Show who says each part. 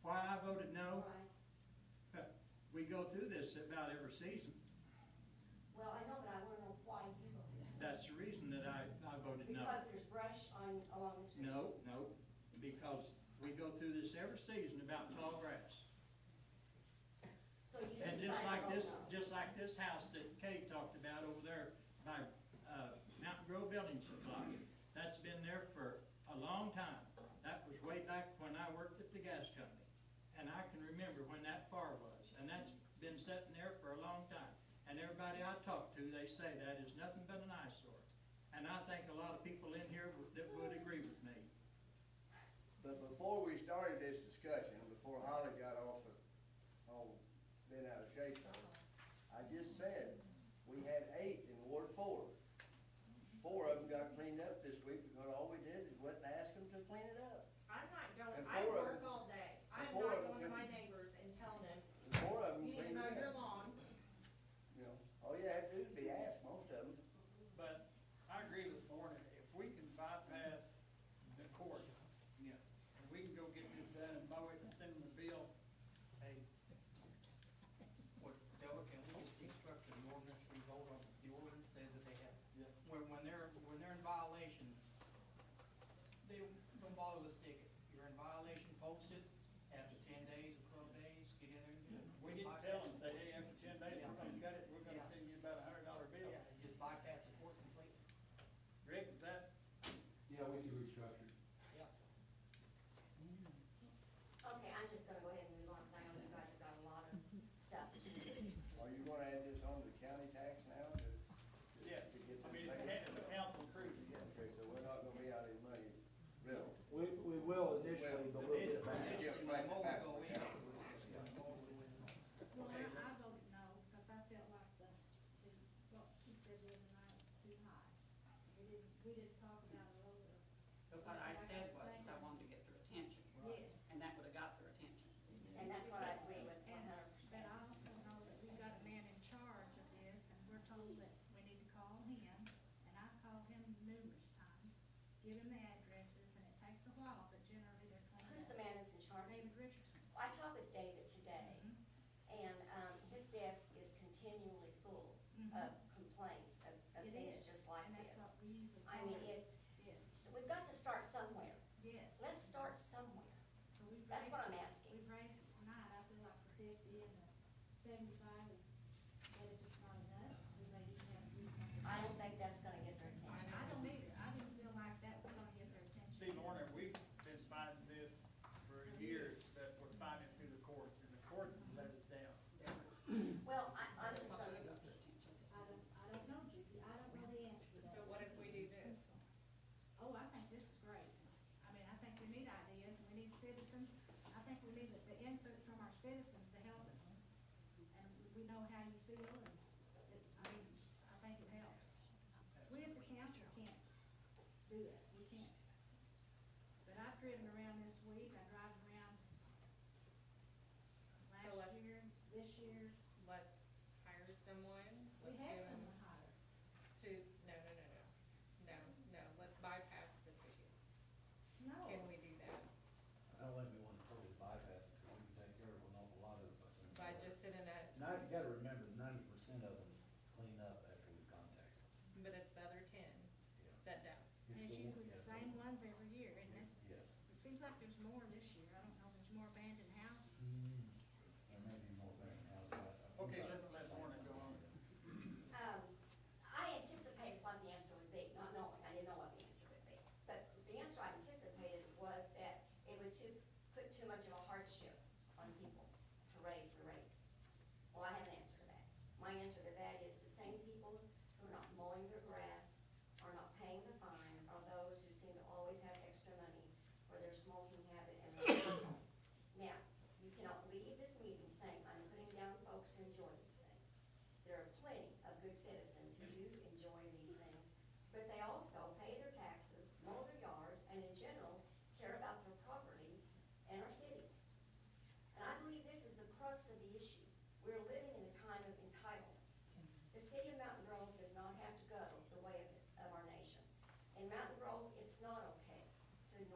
Speaker 1: voted no.
Speaker 2: Right.
Speaker 1: We go through this about every season.
Speaker 2: Well, I know, but I wanna know why you voted. no.
Speaker 1: That's the reason that I, I voted no.
Speaker 2: Because there's brush on, along the streets.
Speaker 1: No, no, because we go through this every season about tall grass.
Speaker 2: So you just
Speaker 1: And just
Speaker 2: decided
Speaker 1: like
Speaker 2: to
Speaker 1: this,
Speaker 2: vote no.
Speaker 1: just like this house that Kate talked about over there by, uh, Mountain Grove Building Supply, that's been there for a long time. That was way back when I worked at the gas company, and I can remember when that far was, and that's been sitting there for a long time. And everybody I talk to, they say that is nothing but an eyesore. And I think a lot of people in here would- that would agree with me.
Speaker 3: But before we started this discussion, before Holly got off of, on, been out of shape on, it, I just said, we had eight in Ward Four. Four of them got cleaned up this week because all we did is went and asked them to clean it up.
Speaker 4: I'm not
Speaker 3: And
Speaker 4: going, I
Speaker 3: four of
Speaker 4: work
Speaker 3: them-
Speaker 4: all day.
Speaker 3: and
Speaker 4: I'm
Speaker 3: four
Speaker 4: not
Speaker 3: of them
Speaker 4: going to
Speaker 3: can-
Speaker 4: my neighbors and telling them,
Speaker 3: And Four of them
Speaker 4: you need to
Speaker 3: cleaned
Speaker 4: mow
Speaker 3: it
Speaker 4: your
Speaker 3: up.
Speaker 4: lawn.
Speaker 3: You know, all you have to do is be asked, most of them.
Speaker 5: But I agree with Warren, if we can bypass the court, you know, and we can go get this done and mow it and send them the bill, hey,
Speaker 6: What, Della, can we just restructure the ordinance, we vote on, the ordinance says that they have, when, when they're, when they're in violation, they don't bother with the ticket. You're in violation, post it, after ten days or twelve days, get in there and do it.
Speaker 5: we didn't tell them, say, hey, after ten days, we're gonna cut it, we're gonna
Speaker 6: Yeah.
Speaker 5: send you about a hundred dollar bill.
Speaker 6: Yeah, you just bypass the court completely.
Speaker 5: Rick, is that,
Speaker 7: Yeah, we can restructure.
Speaker 6: Yeah.
Speaker 2: Okay, I'm just gonna go ahead and move on, because I know you guys have got a lot of stuff. to do.
Speaker 3: Are you gonna add this on to the county tax now to? to-
Speaker 5: yeah,
Speaker 3: to get
Speaker 5: I
Speaker 3: this
Speaker 5: mean,
Speaker 3: thing-
Speaker 5: it's the council crew.
Speaker 3: Yeah, okay, so we're not gonna be out of money, really.
Speaker 7: We, we will initially, but we'll get back.
Speaker 3: Yeah,
Speaker 6: Initially, when the mower
Speaker 3: right.
Speaker 6: go in, the mower will win.
Speaker 8: Well, I, I voted no, because I felt like the, the- what he said the other night was too high. We didn't, we didn't talk about it over.
Speaker 9: But what I said was, is I wanted to get their attention.
Speaker 8: Yes.
Speaker 9: And that would've got their attention.
Speaker 2: And that's what I agree with one
Speaker 8: And,
Speaker 2: hundred
Speaker 8: but
Speaker 2: percent.
Speaker 8: I also know that we've got a man in charge of this, and we're told that we need to call him, and I've called him numerous times, give him the addresses, and it takes a while, but generally they're clean.
Speaker 2: Who's the man that's in charge?
Speaker 8: David Richardson.
Speaker 2: I talked with David today,
Speaker 4: Mm-hmm.
Speaker 2: and, um, his desk is continually full of
Speaker 8: Mhm.
Speaker 2: complaints of, of
Speaker 8: It
Speaker 2: things
Speaker 8: is,
Speaker 2: just like
Speaker 8: And that's
Speaker 2: this.
Speaker 8: what we usually.
Speaker 2: I mean,
Speaker 8: call it.
Speaker 2: it's,
Speaker 8: Yes,
Speaker 2: so we've got to start somewhere.
Speaker 8: yes.
Speaker 2: Let's start somewhere.
Speaker 8: So we've
Speaker 2: That's what
Speaker 8: raised-
Speaker 2: I'm asking.
Speaker 8: We've raised it tonight, I feel like for fifty and the seventy-five is, but if it's not enough, we may just have to do something.
Speaker 2: I don't think that's gonna get their attention.
Speaker 8: I don't either, I didn't feel like that was gonna get their attention.
Speaker 5: See, Lorna, we've been fighting this for years, but we're fighting it through the courts, and the courts have let us down.
Speaker 2: Well, I, I'm just
Speaker 9: Probably
Speaker 2: gonna,
Speaker 9: got their attention.
Speaker 8: I don't, I don't know, Judy, I don't know the answer to that.
Speaker 4: But what if we do this?
Speaker 8: Oh, I think this is great. I mean, I think we need ideas, and we need citizens, I think we need the input from our citizens to help us. And we know how you feel, and, it- I mean, I think it helps. We as a council can't do it, we can't. But I've driven around this week, I drive around
Speaker 4: So
Speaker 8: last
Speaker 4: let's-
Speaker 8: year, this year,
Speaker 4: Let's hire someone.
Speaker 8: we
Speaker 4: Let's
Speaker 8: have
Speaker 4: do it.
Speaker 8: someone hired.
Speaker 4: To, no, no, no, no, no, no, let's bypass the ticket.
Speaker 8: No.
Speaker 4: Can we do that?
Speaker 7: I don't think we want to totally bypass it, because we can take care of an awful lot of it. by
Speaker 4: By
Speaker 7: sending it.
Speaker 4: just sending a,
Speaker 7: Now, you gotta remember, ninety percent of them clean up after we contact them.
Speaker 4: but it's the other ten
Speaker 7: Yeah.
Speaker 4: that don't.
Speaker 8: And it's
Speaker 7: still-
Speaker 8: usually the
Speaker 7: yeah.
Speaker 8: same ones every year, isn't it?
Speaker 7: Yes.
Speaker 8: It seems like there's more this year. I don't know, there's more abandoned houses.
Speaker 7: There may be more than that. I- I-
Speaker 5: Okay, let's let Lorna go on.
Speaker 2: um, I anticipated what the answer would be, not knowing, I didn't know what the answer would be. But the answer I anticipated was that it would too, put too much of a hardship on people to raise the